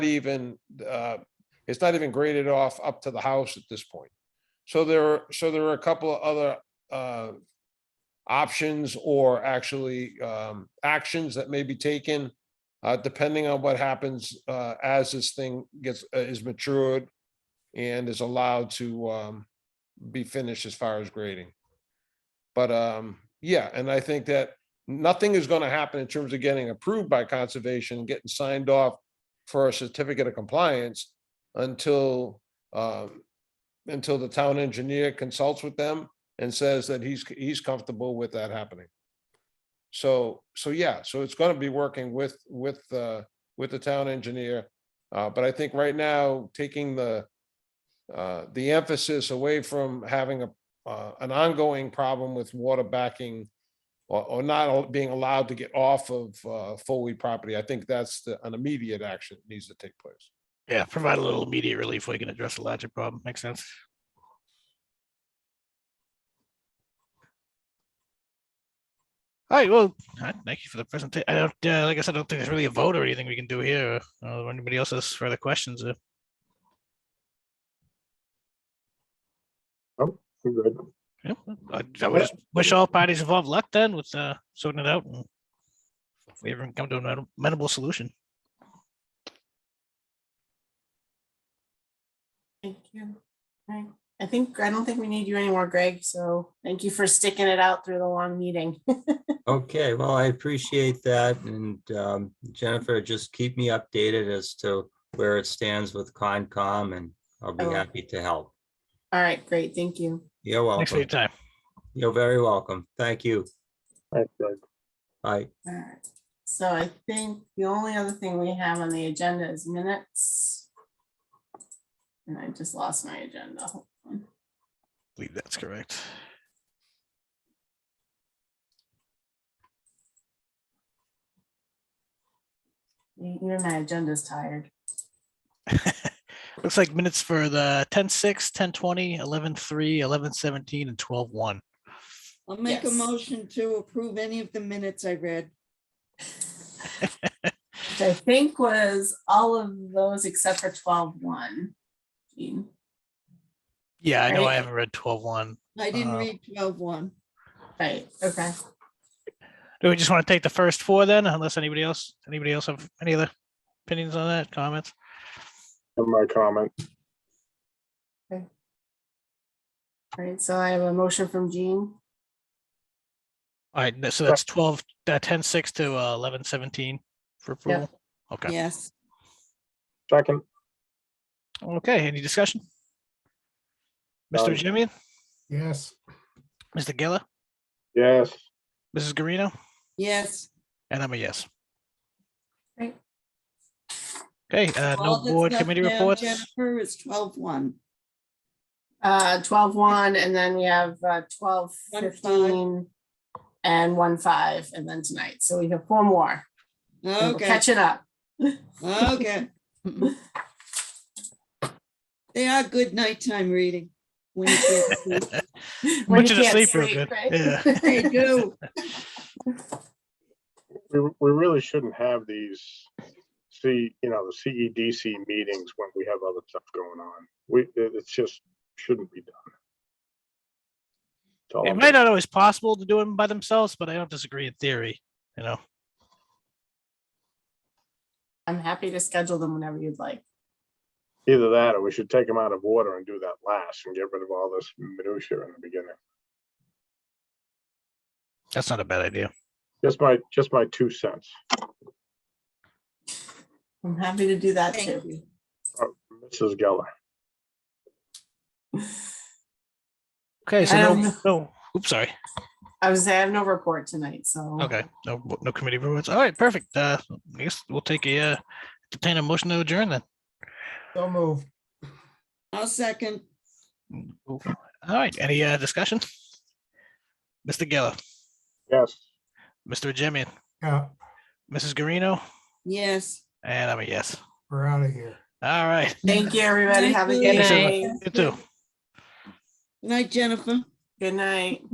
even, uh, it's not even graded off up to the house at this point. So there, are so there are a couple of other uh, options or actually um, actions that may be taken uh, depending on what happens uh, as this thing gets, uh, is matured and is allowed to um, be finished as far as grading. But um, yeah, and I think that nothing is going to happen in terms of getting approved by conservation, getting signed off for a certificate of compliance until, um, until the town engineer consults with them and says that he's, he's comfortable with that happening. So, so yeah, so it's going to be working with, with, uh, with the town engineer. Uh, but I think right now, taking the, uh, the emphasis away from having a, uh, an ongoing problem with water backing or, or not al- being allowed to get off of uh, Foley property, I think that's the, an immediate action that needs to take place. Yeah, provide a little immediate relief where you can address the larger problem. Makes sense. All right, well, all right, thank you for the presentation. I don't, uh, like I said, I don't think there's really a vote or anything we can do here. uh, Or anybody else has further questions? uh, We're good. yeah, I I would just wish all parties involved luck then with uh, sorting it out. and If we ever come to an amenable solution. Thank you. Right. I think, I don't think we need you anymore, Greg, so thank you for sticking it out through the long meeting. Okay, well, I appreciate that. And um, Jennifer, just keep me updated as to where it stands with Concom and I'll be I will. happy to help. All right, great, thank you. You're Thanks for your welcome. time. You're very welcome. Thank you. Bye. All right. So I think the only other thing we have on the agenda is minutes. And I just lost my agenda. Hold on. believe that's correct. Even my agenda's tired. Looks like minutes for the 10-6, 10-20, 11-3, 11-17, and 12-1. I'll make a Yes. motion to approve any of the minutes I read. Which I think was all of those except for twelve one. Jean. Yeah, I know I Right. haven't read 12-1. I didn't Uh, read twelve one. Right, okay. Do we just want to take the first four then, unless anybody else, anybody else have any other opinions on that, comments? My comment, All right, so I have a motion from Jean. All right, so that's 12, uh, 10-6 to uh, 11-17 for approval. Okay, Yes, second, okay, any discussion? None. Mr. Jimmy, Yes, Mr. Geller, yes, Mrs. Garino, yes. and I'm a yes. Great. Okay, uh, no All that's board left committee now, reports. Jennifer is twelve one. Uh, twelve one, and then we have uh twelve One five. fifteen and one five, and then tonight, so we have four more. and we'll Okay, Catch it up. okay. They are good nighttime reading. when you can't sleep. When Put you you to can't sleep real sleep, good. right? Yeah. They do. we, we really shouldn't have these, see, you know, the CEDC meetings when we have other stuff going on. We, it- it's just, shouldn't be done. That's all It I'm might saying. not always possible to do them by themselves, but I don't disagree in theory, you know. I'm happy to schedule them whenever you'd like. Either that, or we should take them out of order and do that last and get rid of all this minutia in the beginning. That's not a bad idea. Just my, just my two cents. I'm happy to do that Thank too. you. Mrs. Geller, Okay, so no, Um, no, oops, sorry. I was, I have no report tonight, so. Okay, no, no committee reports. All right, perfect. Uh, I guess we'll take a, uh, entertain a motion to adjourn then. so moved. I'll second. All right, any, uh, discussion? Mr. Geller, yes. Mr. Jimmy, Yeah, Mrs. Garino, Yes. and I'm a yes. we're out of here. All right. Thank you, everybody. Have a good Thank you. night. You too. Good night, Jennifer. Good night.